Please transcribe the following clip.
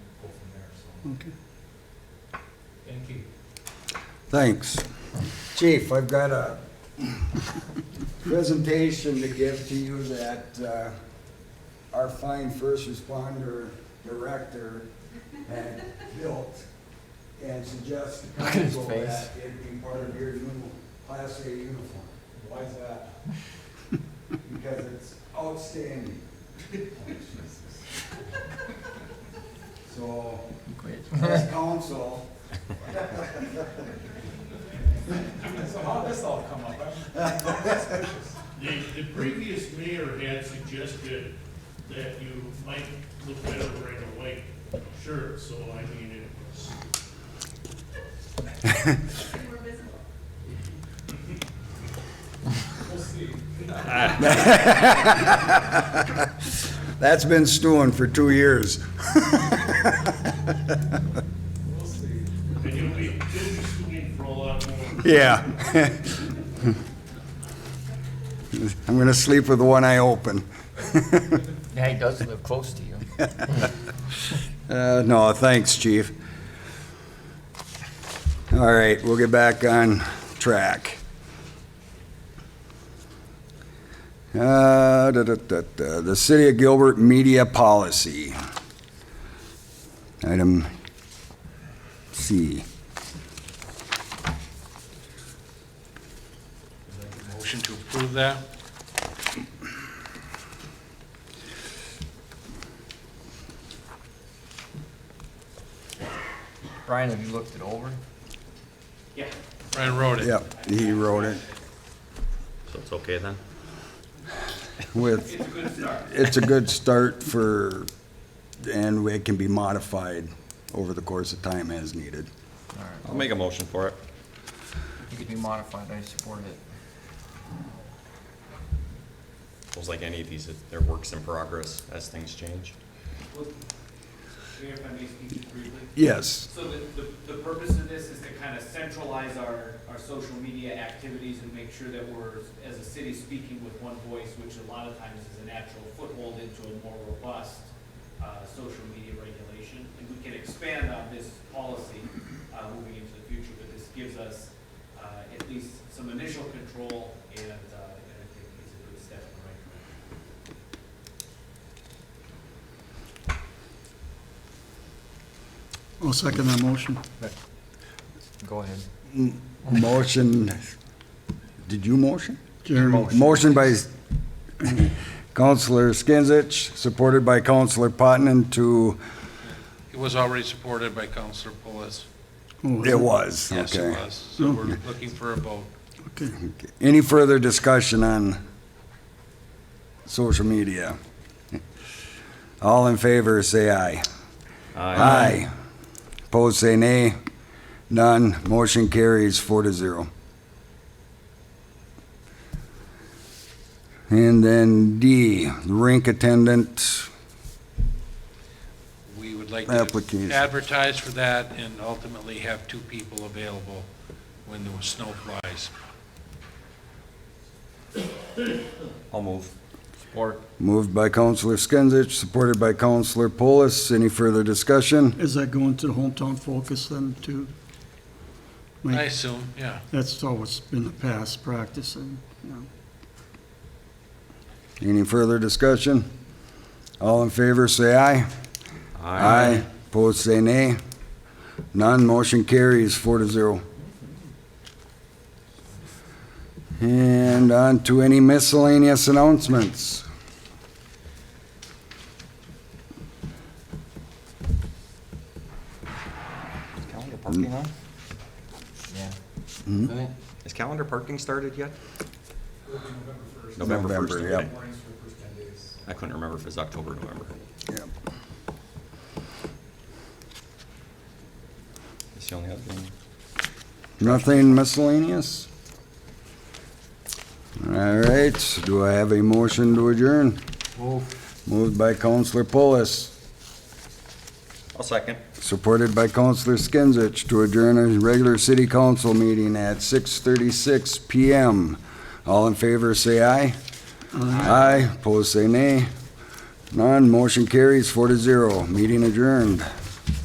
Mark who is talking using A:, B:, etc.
A: Okay.
B: Thank you.
C: Thanks. Chief, I've got a presentation to give to you that uh, our fine first responder director had built and suggests to
D: Look at his
C: council
D: face.
C: that it be part of your new Class A uniform. Why is that? Because it's outstanding. So, as council,
B: So how did this all come up? I'm-
E: The, the previous mayor had suggested that you might look better wearing a white shirt, so I mean, it was,
F: More visible.
B: We'll see.
C: That's been stewing for two years.
B: We'll see.
E: and you'll be, you'll be suing for a lot more.
C: Yeah. I'm gonna sleep with one eye open.
D: Yeah, he does live close to you.
C: Uh, no, thanks, chief. All right, we'll get back on track. Uh, da, da, da, da, the City of Gilbert Media Policy. Item C.
G: Motion to approve that?
D: Brian, have you looked it over?
G: Brian wrote it.
C: Yep, he wrote it.
H: So it's okay then?
C: with. It's a good start. for, and it can be modified over the course of time as needed.
D: All right,
H: I'll make a motion for it.
D: it could be modified, I support it.
H: It's like any of these, it- they're works in progress as things change.
I: Well, Mayor, if I may speak just briefly.
C: Yes,
I: So the, the, the purpose of this is to kind of centralize our, our social media activities and make sure that we're, as a city, speaking with one voice, which a lot of times is a natural foothold into a more robust, uh, social media regulation. And we can expand on this policy, uh, moving into the future, but this gives us, uh, at least some initial control and, uh, and I think is a good step in the right direction.
A: I'll second that motion.
D: Go ahead.
C: motion, did you motion?
A: Jeremy,
C: Motion by Counselor Skinsich, supported by Counselor Potenon to,
G: It was already supported by Counselor Pulis.
A: oh,
C: it was,
G: Yes, it
C: okay.
G: was. So we're looking for a vote.
A: Okay.
C: Any further discussion on social media? All in favor, say aye. Aye. Opposed, say nay. None. Motion carries four to zero. And then D, rink attendant.
G: We would like
C: Application.
G: to advertise for that and ultimately have two people available when the snow flies.
H: I'll move.
D: Support.
C: Moved by Counselor Skinsich, supported by Counselor Polis. Any further discussion?
A: Is that going to the hometown focus then too? Like,
G: I assume, yeah.
A: That's always been the past practice and, you know.
C: Any further discussion? All in favor, say aye. Aye. Opposed, say nay. None, motion carries four to zero. And on to any miscellaneous announcements.
H: Is calendar parking on?
D: Yeah.
H: Is calendar parking started yet?
C: November
H: November first.
C: November, yep.
H: okay. I couldn't remember if it's October, or November.
C: Yep.
H: It's the only other thing.
C: Nothing miscellaneous? All right, do I have a motion to adjourn? Moved by Counselor Polis,
H: I'll second.
C: supported by Counselor Skinsich to adjourn a regular city council meeting at six thirty-six PM. All in favor, say aye. Aye, opposed, say nay. None, motion carries four to zero, meeting adjourned.